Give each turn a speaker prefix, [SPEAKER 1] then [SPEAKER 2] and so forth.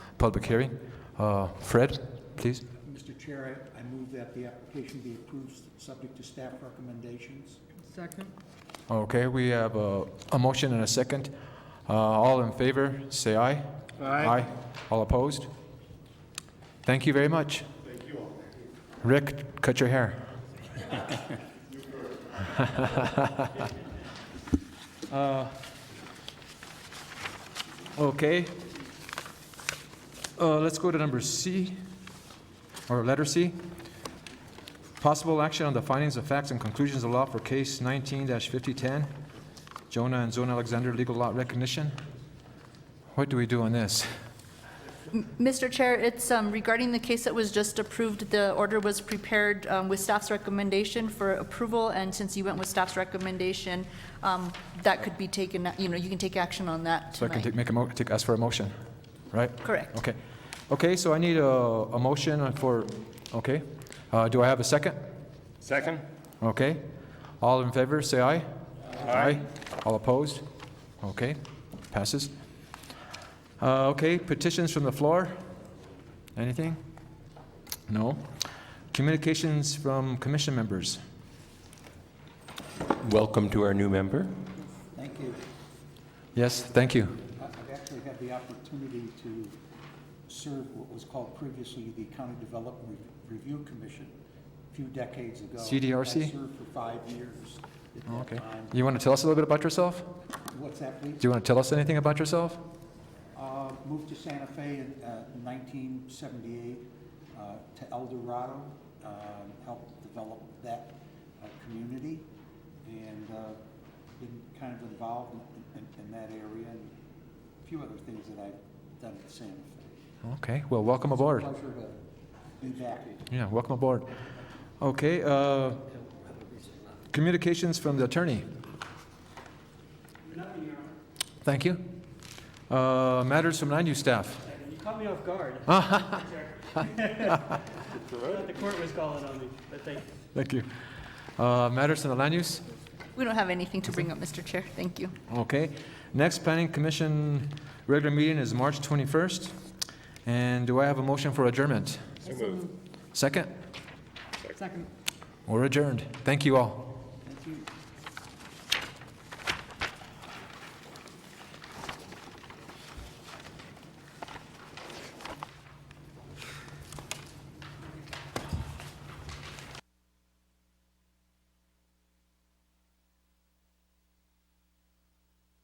[SPEAKER 1] public hearing. Uh, Fred, please.
[SPEAKER 2] Mr. Chair, I I move that the application be approved, subject to staff recommendations.
[SPEAKER 3] Second?
[SPEAKER 1] Okay, we have a, a motion and a second. Uh, all in favor, say aye.
[SPEAKER 2] Aye.
[SPEAKER 1] All opposed? Thank you very much. Thank you all. Rick, cut your hair. Uh, Okay. Uh, let's go to number C, or letter C. Possible action on the findings of facts and conclusions of law for case 19-5010, Jonah and Zona Alexander legal lot recognition. What do we do on this?
[SPEAKER 4] Mr. Chair, it's um, regarding the case that was just approved, the order was prepared um, with staff's recommendation for approval, and since you went with staff's recommendation, um, that could be taken, you know, you can take action on that
[SPEAKER 1] So I can
[SPEAKER 4] tonight.
[SPEAKER 1] take, make a mo, take, ask for a motion, right?
[SPEAKER 4] Correct.
[SPEAKER 1] Okay. Okay, so I need a, a motion for, okay. Uh, do I have a second?
[SPEAKER 5] Second?
[SPEAKER 1] Okay. All in favor, say aye. Aye. All opposed? Okay, passes. Uh, okay, petitions from the floor? Anything? No. Communications from commission members?
[SPEAKER 5] Welcome to our new member.
[SPEAKER 2] Thank you.
[SPEAKER 1] Yes, thank you.
[SPEAKER 2] I- I've actually had the opportunity to serve what was called previously the County Development Re- Review Commission a few decades ago.
[SPEAKER 1] CDRC?
[SPEAKER 2] I served for five years
[SPEAKER 1] Oh,
[SPEAKER 2] at that
[SPEAKER 1] Okay.
[SPEAKER 2] time.
[SPEAKER 1] You want to tell us a little bit about yourself?
[SPEAKER 2] What's that, please?
[SPEAKER 1] Do you want to tell us anything about yourself?
[SPEAKER 2] Uh, Moved to Santa Fe in uh, 1978, uh, to El Dorado, um, helped develop that uh, community, and uh, been kind of involved in- in in that area, and a few other things that I've done at Santa Fe.
[SPEAKER 1] Okay, well, welcome aboard.
[SPEAKER 2] Pleasure to be back.
[SPEAKER 1] Yeah, welcome aboard. Okay, uh, communications from the attorney. Thank you. Uh, Matters from land use staff.
[SPEAKER 6] You caught me off guard. Thought The court was calling on me, but thank you.
[SPEAKER 1] Thank you. Uh, Matters from the land use,
[SPEAKER 4] We don't have anything to bring up, Mr. Chair, thank you.
[SPEAKER 1] okay. Next planning commission regular meeting is March 21st. And do I have a motion for adjournment? Second?
[SPEAKER 3] Second.
[SPEAKER 1] We're adjourned. Thank you all.
[SPEAKER 2] Thank you.